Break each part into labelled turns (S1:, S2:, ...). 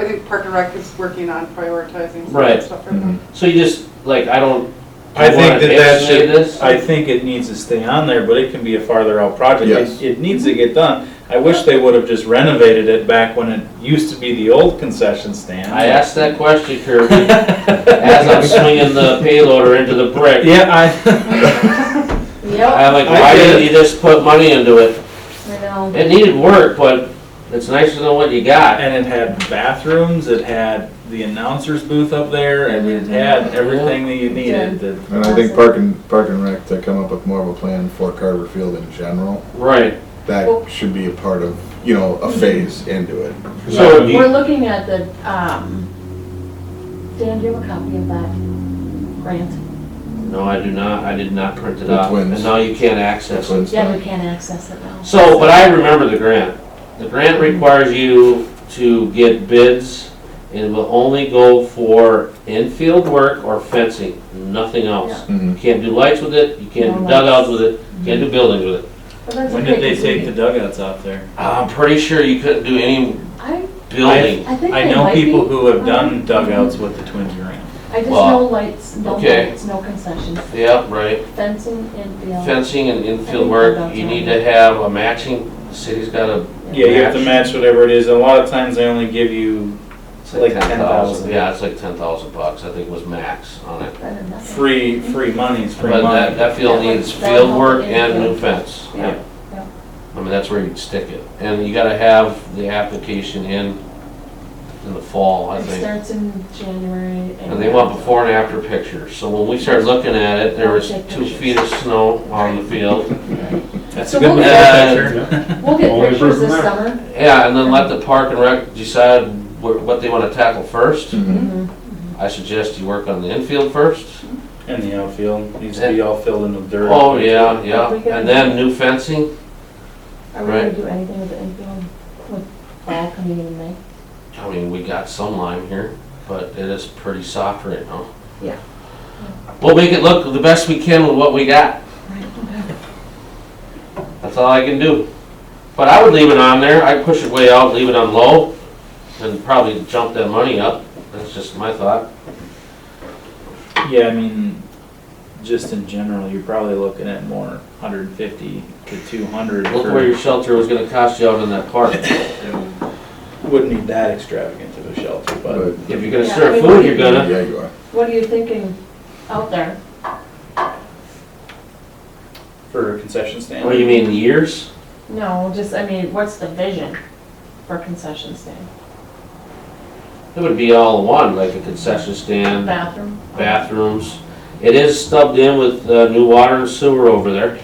S1: I think Park and Rec is working on prioritizing some of
S2: Right.
S1: that stuff right
S3: Mm-hmm.
S1: now.
S2: So you just, like, I don't.
S3: I
S2: do you
S3: think
S2: wanna
S3: that that
S2: designate
S3: should,
S2: this?
S3: I think it needs to stay on there, but it can be a farther out project. It-
S4: Yes.
S3: It needs to get done. I wish they would have just renovated it back when it used to be the old concession stand.
S2: I asked that question, Kirby, as I'm swinging the payloader into the brick.
S3: Yeah, I,
S5: Yep,
S2: I'm like,
S3: I
S2: why
S3: get
S2: didn't
S3: it.
S2: you just put money into it?
S5: I know.
S2: It needed work, but it's nicer than what you got.
S3: and it had bathrooms, it had the announcer's booth up there, and it
S2: Mm-hmm.
S3: had everything that you needed. that-
S4: And I think Park and, Park and Rec to come up with more of a plan for Carver Field in general,
S2: Right,
S5: Well- Mm-hmm.
S4: that should be a part of, you know, a phase into it.
S2: so, do
S5: We're
S2: you-
S5: looking at the, um, Dan, do you have a copy of that grant?
S2: no, I do not, I did not print it
S4: The
S2: out, and
S4: twins.
S2: now you can't access it.
S5: Yeah, we can't access it now.
S2: So, but I remember the grant. The grant requires you to get bids and will only go for infield work or fencing, nothing
S3: Oh.
S2: else. You
S4: Mhm.
S2: can't do lights with it, you can't do
S5: No Mm-hmm.
S2: dugouts with it, you can't do buildings with it.
S5: But that's
S3: When
S5: okay,
S3: did they
S5: 'cause
S3: take the
S5: we-
S3: dugouts out there?
S2: I'm pretty sure you couldn't do any
S5: I,
S2: building.
S5: I think
S3: I
S5: they
S3: know
S5: might be.
S3: people who have done dugouts with the Twins grant.
S5: I just
S2: Well,
S5: know lights, no
S2: okay.
S5: lights, no concessions,
S2: Yeah, right.
S5: fencing and field.
S2: Fencing and infield work, you need to have a matching, the city's got a.
S3: Yeah, you have to match whatever it is. A lot of times they only give you
S2: It's
S3: like 10,000.
S2: Yeah, it's like ten thousand bucks, I think was max on it.
S5: Better than nothing.
S3: free, free monies, free
S2: But that,
S3: money.
S2: that field
S5: Yeah,
S2: needs
S5: like,
S2: field
S5: that'll
S2: work
S5: help
S2: and new
S5: it.
S2: fence.
S5: Yeah, yeah.
S2: I mean, that's where you'd stick it. And you gotta have the application in, in the fall, I
S5: It
S2: think.
S5: starts in January.
S2: And they want before and after pictures. So when we started looking at it, there was
S5: Take
S2: two
S5: pictures.
S2: feet of snow on the field.
S3: That's
S5: So
S3: a good
S5: we'll
S3: one.
S2: get-
S5: We'll get
S6: Only
S5: pictures
S6: from
S5: this
S6: there.
S5: summer.
S2: Yeah, and then let the park and rec decide wh- what they wanna tackle first.
S3: Mm-hmm.
S4: Mhm.
S5: Mm-hmm.
S2: I suggest you work on the infield first.
S3: And the outfield needs to be all filled in with dirt.
S2: Oh, yeah, yeah. And then new fencing.
S5: Are we gonna
S2: Right.
S5: do anything with the infield, with fall coming in May?
S2: I mean, we got some lime here, but it is pretty soft right now.
S5: Yeah.
S2: We'll make it look the best we can with what we got. That's all I can do. But I would leave it on there, I'd push it way out, leave it on low, and probably jump that money up. That's just my thought.
S3: Yeah, I mean, just in general, you're probably looking at more 150 to 200
S2: Look where your
S3: for,
S2: shelter was gonna cost you out in that park.
S3: wouldn't need that extravagant of a shelter, but
S4: But,
S2: If you're gonna
S5: Yeah,
S2: serve
S5: I mean,
S2: food,
S5: we-
S2: you're gonna,
S4: yeah, you are.
S5: What are you thinking out there?
S3: for a concession stand.
S2: what do you mean, years?
S5: No, just, I mean, what's the vision for concession stand?
S2: It would be all in one, like a concession stand,
S5: Bathroom?
S2: bathrooms. It is stubbed in with uh, new water and sewer over there.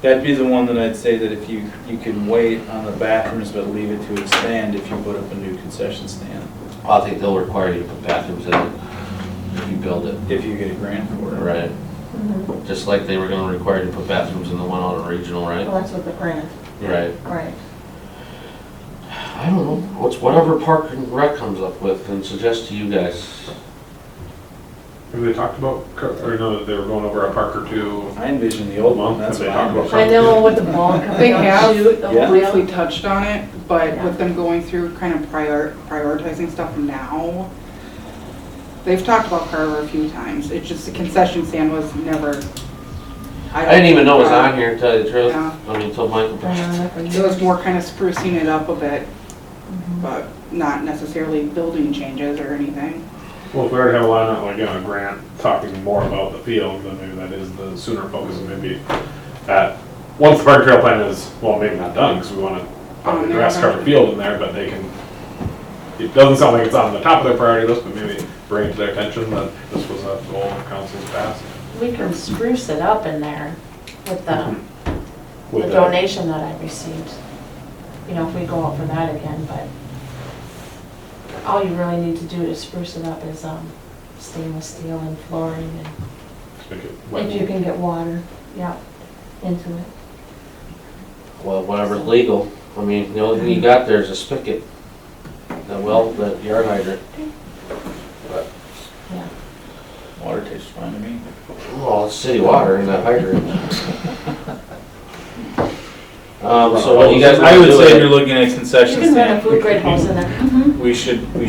S3: That'd be the one that I'd say that if you, you can wait on the bathrooms, but leave it to expand if you put up a new concession stand,
S2: I think they'll require you to put bathrooms in it if you build it.
S3: if you get a grant for it.
S2: Right.
S5: Mhm.
S2: Just like they were gonna require you to put bathrooms in the one on the regional, right?
S5: Well, Oh, that's with the grant,
S2: Right.
S5: right.
S2: I don't know, what's whatever Park and Rec comes up with and suggest to you guys.
S6: Have they talked about, co- or no, they were going over a park or two?
S3: I envision the old one, that's
S6: They
S3: what
S6: talk
S3: I'm
S6: about
S5: I know with the ball
S1: They
S5: coming out,
S1: have,
S5: shoot, the
S3: yeah.
S5: wheel.
S1: Briefly touched on it, but with them going through kind of prior, prioritizing stuff now, they've talked about Carver a few times. It's just the concession stand was never.
S2: I didn't even know it was on here, to tell you the truth.
S1: Yeah.
S2: I mean, till Michael.
S5: Uh, for
S1: It was
S5: years.
S1: more kind of sprucing it up a bit, but not necessarily building changes or anything.
S6: Well, if we already have a lot on, like, you know, Grant talking more about the field, then maybe that is the sooner focus, and maybe that, once the park trail plan is, well, maybe not done, because we want to
S1: On
S5: Oh,
S6: probably
S1: their
S6: grass covered
S1: priority.
S6: field in there, but they can, it doesn't sound like it's on the top of their priority list, but maybe bring it to their attention that this was a goal of council's past.
S5: We can spruce it up in there with the,
S6: with
S5: the
S6: the-
S5: donation that I received. You know, if we go out for that again, but all you really need to do to spruce it up is, um, stainless steel and flooring and
S6: make it
S5: If you
S6: wet.
S5: can get water, yeah, into it.
S2: Well, whatever's legal. I mean, the only thing you got there is a spigot. That well, that yard hydrant.
S3: Water tastes fine to me.
S2: Well, it's city water in that hydrant. Um, so what you guys
S3: I
S2: wanna
S3: would
S2: do
S3: say
S2: is-
S3: if you're looking at concession
S5: You can rent a
S3: stand,
S5: food grade house in there. Mm-hmm.
S3: we should, we